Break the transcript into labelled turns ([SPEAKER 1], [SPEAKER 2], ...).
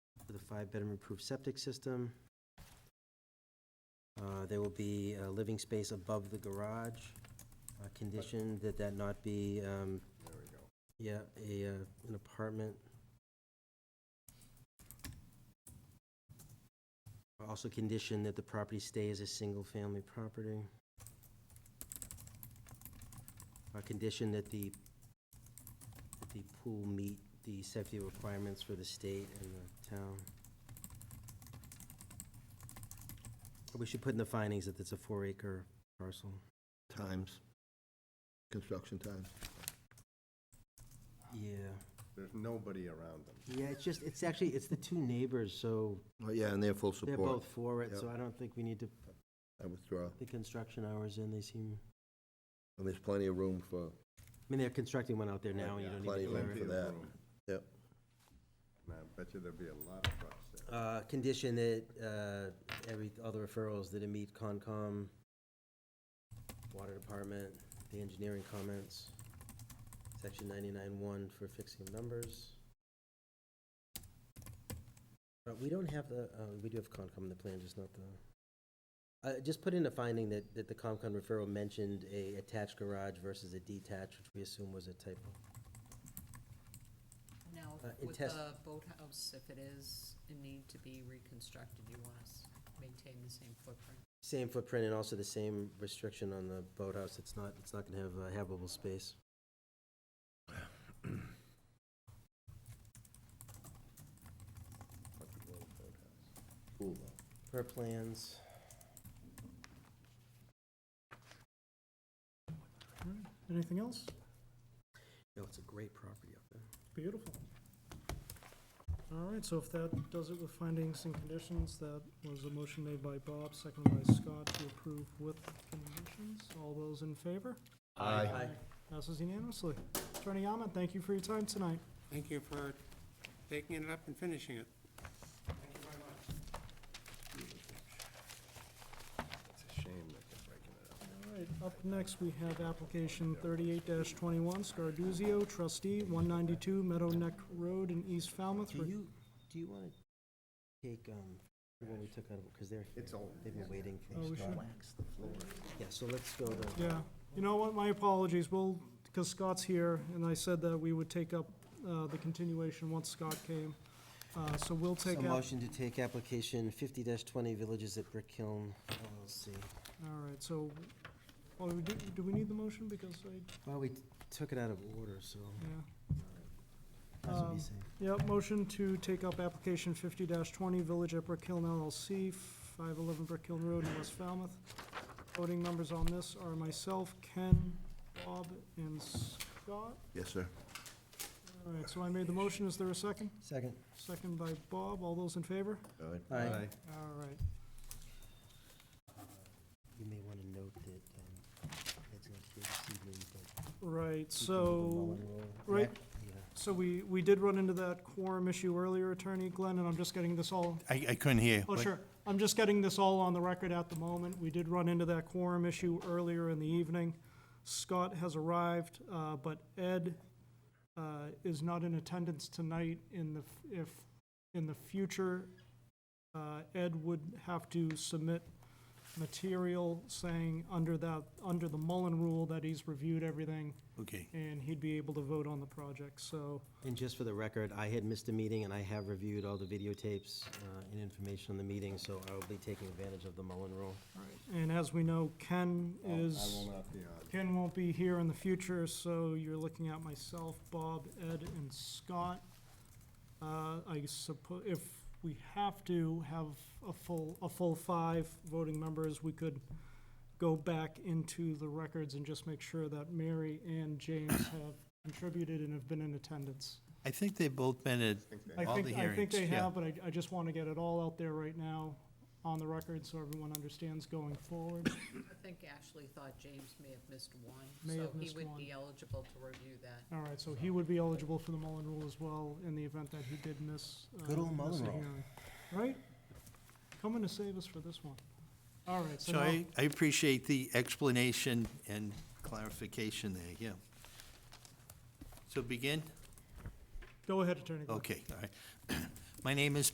[SPEAKER 1] five-bedroom approved septic system. Uh, There will be a living space above the garage, uh, condition that that not be, um,
[SPEAKER 2] There we go.
[SPEAKER 1] yeah, a, uh, an apartment. Also condition that the property stay as a single-family property. A condition that the, that the pool meet the safety requirements for the state and the town. We should put in the findings that it's a four-acre parcel.
[SPEAKER 3] Times, construction times.
[SPEAKER 1] Yeah.
[SPEAKER 2] There's nobody around them.
[SPEAKER 1] Yeah, it's just, it's actually, it's the two neighbors, so
[SPEAKER 3] Oh, yeah, and they're full
[SPEAKER 1] They're
[SPEAKER 3] support.
[SPEAKER 1] both for it,
[SPEAKER 3] Yep.
[SPEAKER 1] so I don't think we need to put
[SPEAKER 3] I withdraw.
[SPEAKER 1] the construction hours in, they seem,
[SPEAKER 3] And there's plenty of room for,
[SPEAKER 1] I mean, they're constructing one out there now, and you don't
[SPEAKER 3] Plenty
[SPEAKER 1] need
[SPEAKER 3] of
[SPEAKER 1] to
[SPEAKER 3] room
[SPEAKER 1] clear
[SPEAKER 2] Plenty
[SPEAKER 1] it.
[SPEAKER 3] for
[SPEAKER 2] of
[SPEAKER 3] that.
[SPEAKER 2] room.
[SPEAKER 3] Yep.
[SPEAKER 2] And I bet you there'd be a lot of trucks there.
[SPEAKER 1] Uh, condition that, uh, every, all the referrals that it meet Concom, Water Department, the engineering comments, section ninety-nine one for fixing numbers. Uh, we don't have the, uh, we do have Concom in the plan, just not the, uh, just put in a finding that, that the Concom referral mentioned a attached garage versus a detached, which we assume was a typo.
[SPEAKER 4] Now,
[SPEAKER 1] Uh, in
[SPEAKER 4] with
[SPEAKER 1] test-
[SPEAKER 4] the boathouse, if it is in need to be reconstructed, you want us to maintain the same footprint?
[SPEAKER 1] Same footprint and also the same restriction on the boathouse, it's not, it's not gonna have uh, habitable space.
[SPEAKER 2] Fucking little boathouse.
[SPEAKER 3] pool, though.
[SPEAKER 1] Per plans.
[SPEAKER 5] Anything else?
[SPEAKER 1] Yo, it's a great property up there.
[SPEAKER 5] Beautiful. All right, so if that does it with findings and conditions, that was a motion made by Bob, seconded by Scott to approve with conditions. All those in favor?
[SPEAKER 1] Aye.
[SPEAKER 5] Passes unanimously. Attorney Yaman, thank you for your time tonight.
[SPEAKER 6] Thank you for taking it up and finishing it. Thank you very much.
[SPEAKER 2] It's a shame that they're breaking it up.
[SPEAKER 5] All right, up next, we have application thirty-eight twenty-one, Scarduzio, trustee, one ninety-two Meadow Neck Road in East Falmouth.
[SPEAKER 1] Do you, do you wanna take, um, what we took out of, cause they're,
[SPEAKER 2] It's old.
[SPEAKER 1] they've been waiting
[SPEAKER 5] Oh,
[SPEAKER 1] for
[SPEAKER 5] we
[SPEAKER 1] Scott.
[SPEAKER 5] should-
[SPEAKER 1] Yeah, so let's go to,
[SPEAKER 5] Yeah, you know what, my apologies, well, because Scott's here, and I said that we would take up uh, the continuation once Scott came. Uh, So we'll
[SPEAKER 1] so
[SPEAKER 5] take up, all
[SPEAKER 1] motion to take application fifty twenty Villages at Brick Hill LLC.
[SPEAKER 5] right, so, well, we do, do we need the motion, because I,
[SPEAKER 1] Well, we t- took it out of order, so,
[SPEAKER 5] yeah.
[SPEAKER 1] that's what
[SPEAKER 5] Um,
[SPEAKER 1] you say.
[SPEAKER 5] Yep, motion to take up application fifty twenty, Village at Brick Hill LLC, five eleven Brick Hill Road in West Falmouth. Voting members on this are myself, Ken, Bob, and Scott.
[SPEAKER 3] Yes, sir.
[SPEAKER 5] All right, so I made the motion, is there a second?
[SPEAKER 1] Second.
[SPEAKER 5] Second by Bob, all those in favor?
[SPEAKER 3] All right.
[SPEAKER 1] Aye.
[SPEAKER 5] All right,
[SPEAKER 1] You may wanna note that, um, it's not here this evening, but. we
[SPEAKER 5] right,
[SPEAKER 1] can do the
[SPEAKER 5] so,
[SPEAKER 1] Mullen Roll.
[SPEAKER 5] right-
[SPEAKER 1] Yeah.
[SPEAKER 5] so we, we did run into that quorum issue earlier, Attorney Glenn, and I'm just getting this all,
[SPEAKER 7] I, I couldn't hear.
[SPEAKER 5] oh,
[SPEAKER 7] what-
[SPEAKER 5] sure, I'm just getting this all on the record at the moment. We did run into that quorum issue earlier in the evening. Scott has arrived, uh, but Ed, uh, is not in attendance tonight in the, f- if, in the future, uh, Ed would have to submit material saying under that, under the Mullen rule that he's reviewed everything
[SPEAKER 7] Okay,
[SPEAKER 5] and he'd be able to vote on the project, so,
[SPEAKER 1] And just for the record, I had missed a meeting, and I have reviewed all the videotapes uh, and information on the meeting, so I will be taking advantage of the Mullen rule.
[SPEAKER 5] and as we know, Ken
[SPEAKER 2] I'll- Oh, I
[SPEAKER 5] is,
[SPEAKER 2] will not be on.
[SPEAKER 5] Ken won't be here in the future, so you're looking at myself, Bob, Ed, and Scott. Uh, I suppose, if we have to have a full, a full five voting members, we could go back into the records and just make sure that Mary and James have contributed and have been in attendance.
[SPEAKER 7] I think they've both been at
[SPEAKER 5] I
[SPEAKER 7] all the
[SPEAKER 5] think, I
[SPEAKER 7] hearings.
[SPEAKER 5] think they
[SPEAKER 7] yeah.
[SPEAKER 5] have, but I, I just want to get it all out there right now on the record so everyone understands going forward.
[SPEAKER 4] I think Ashley thought James may have missed one,
[SPEAKER 5] May
[SPEAKER 4] so
[SPEAKER 5] have
[SPEAKER 4] he
[SPEAKER 5] missed
[SPEAKER 4] would
[SPEAKER 5] one.
[SPEAKER 4] be eligible to review that.
[SPEAKER 5] All right, so he would be eligible for the Mullen Rule as well in the event that he did miss. uh,
[SPEAKER 1] Good old
[SPEAKER 5] miss
[SPEAKER 1] Mullen
[SPEAKER 5] a
[SPEAKER 1] Rule.
[SPEAKER 5] hearing. Right? Coming to save us for this one. All right, so
[SPEAKER 7] So
[SPEAKER 5] now,
[SPEAKER 7] I, I appreciate the explanation and clarification there, yeah. So begin?
[SPEAKER 5] go ahead, Attorney Glenn.
[SPEAKER 7] Okay, all right. My name is